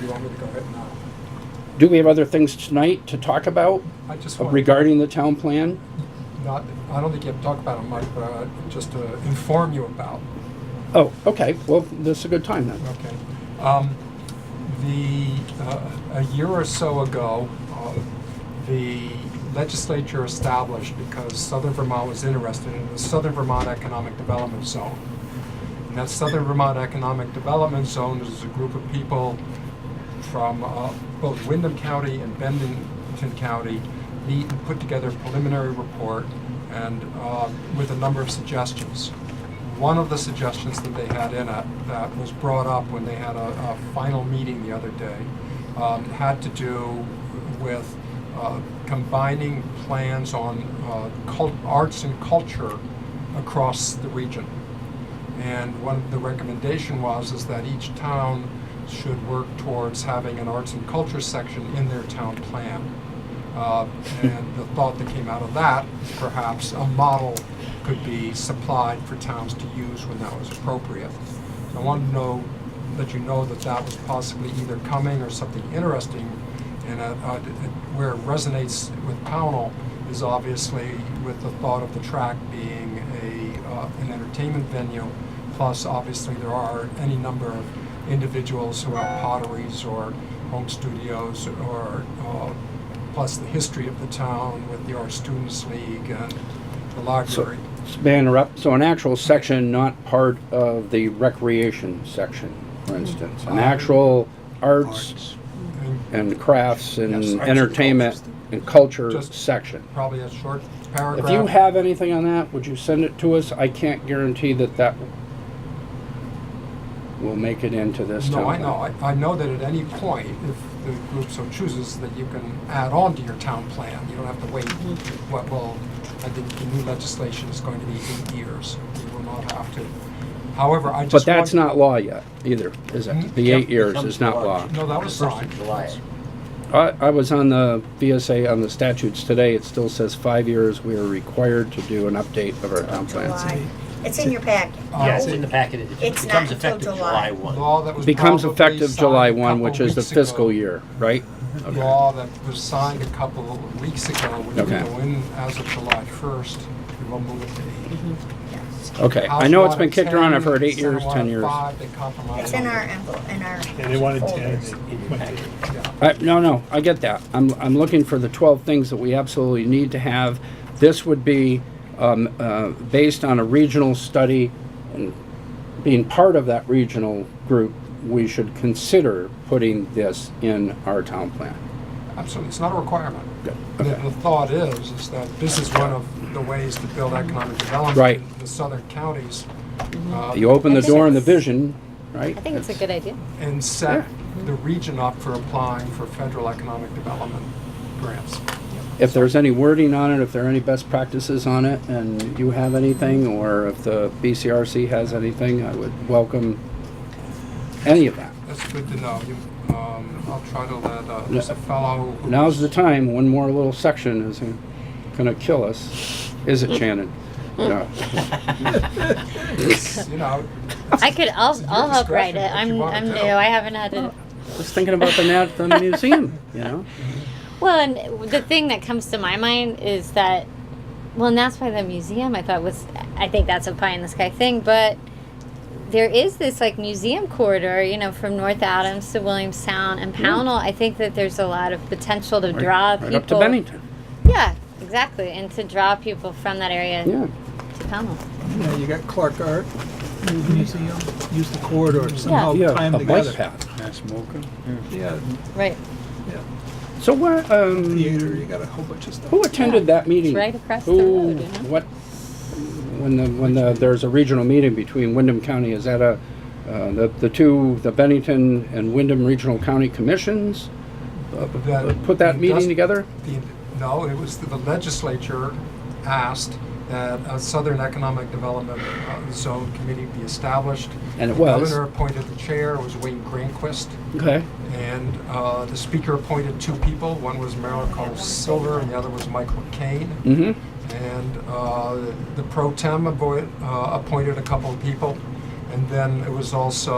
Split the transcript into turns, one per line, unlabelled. you want me to go ahead now?
Do we have other things tonight to talk about
I just want,
regarding the town plan?
not, I don't think you have to talk about it much, but uh, just to inform you about,
Oh, okay, well, this is a good time then.
okay? Um, The, uh, a year or so ago, uh, the legislature established, because Southern Vermont was interested in the Southern Vermont Economic Development Zone. And that Southern Vermont Economic Development Zone is a group of people from uh, both Wyndham County and Bennington County meet and put together a preliminary report and uh, with a number of suggestions. One of the suggestions that they had in it that was brought up when they had a, a final meeting the other day um, had to do with uh, combining plans on uh, cult, arts and culture across the region. And one of the recommendation was is that each town should work towards having an arts and culture section in their town plan. Uh, and the thought that came out of that, perhaps a model could be supplied for towns to use when that was appropriate. So I wanted to know, let you know that that was possibly either coming or something interesting. And uh, uh, d- d- where it resonates with Pownell is obviously with the thought of the track being a, uh, an entertainment venue. Plus, obviously, there are any number of individuals who have potteries or home studios or, uh, plus the history of the town with the Art Students League and the library.
May I interrupt? So an actual section, not part of the recreation section, for instance? An actual arts
And
and crafts
Yes, arts
and
and
entertainment
cultures.
and culture
Just-
section?
Probably a short
If
paragraph.
you have anything on that, would you send it to us? I can't guarantee that that will make it into this town.
No, I
plan.
know, I, I know that at any point, if the group so chooses, that you can add on to your town plan, you don't have to wait.
Mm-hmm.
What, well, I think the new legislation is going to be eight years, you will not have to. However, I
But
just.
that's
want-
not law yet either, is it?
Mm,
The
yep,
eight years
becomes
is not
law.
law.
No, that was
First
signed.
of July.
I, I was on the VSA on the statutes today. It still says five years. We are required to do an update of our town plans.
July. It's in your packet.
Uh,
Yeah, it's in the packet. It
It's not
becomes
until
effective
July.
July one.
Law that was.
Becomes
probably
effective
signed
July
a
one,
couple
which is the
weeks ago.
fiscal year, right? Okay.
Law that was signed a couple of weeks ago, when you
Okay.
go in as of July first, we will move it to eight.
Okay, Mm-hmm. I
House
know
law
it's been
to
kicked around.
10,
I've heard eight
Senate
years,
law
ten
to
years.
five, they compromise
It's in
on
our
it.
envelof, in our.
Yeah, they wanted ten, and
folders.
they went to eight.
Yeah.
I, no, no, I get that. I'm, I'm looking for the 12 things that we absolutely need to have. This would be um, uh, based on a regional study, and being part of that regional group, we should consider putting this in our town plan.
Absolutely, it's not a requirement.
Good.
The the thought is, is that this is one of the ways to build economic development.
Right.
in The southern counties. uh,
You open the
I think
door and the
it's-
vision, right?
I think it's a good idea.
And set the region up for applying for federal economic development grants.
If there's any wording on it, if there are any best practices on it, and you have anything, or if the BCRC has anything, I would welcome any of that.
That's good to know. You- um, I'll try to let, uh, there's a fellow. who-
Now's the time, one more little section is gonna kill us, is
Mm.
it Shannon? No.
You know,
I could, I'll,
your
I'll help write
discretion
it.
if you
I'm,
wanna
I'm new.
do.
I haven't had it.
Just thinking about the nat, the museum, you know?
Well, and the thing that comes to my mind is that, well, and that's why the museum I thought was, I think that's a pie in the sky thing, but there is this like museum corridor, you know, from North Adams to Williamstown and Pownell. I think that there's a lot of potential to
Mm-hmm. Right-
draw
right
people.
Up to Bennington,
Yeah, exactly. And to draw people from that area
yeah.
to Pownell.
Yeah, you got Clark Art Museum, use the corridor somehow
Yeah,
time
a bike
together.
path.
Yeah,
Right.
So where, um,
theater, you got a whole bunch of stuff.
who attended that meeting?
It's right across the
Who,
road, you know?
what, when the, when the, there's a regional meeting between Wyndham County, is that a, uh, the, the two, the Bennington and Wyndham Regional County Commissions? uh,
That-
Put that meeting
Doesn't-
together?
The, no, it was the legislature asked that a Southern Economic Development uh, Zone Committee be established.
And it was.
The governor appointed the chair, it was Wayne Granquist,
Okay,
and uh, the speaker appointed two people. One was Marilyn Carl Silver, and the other was Michael Kane.
mm-hmm.
And uh, the pro tem avo- uh, appointed a couple of people. And then it was also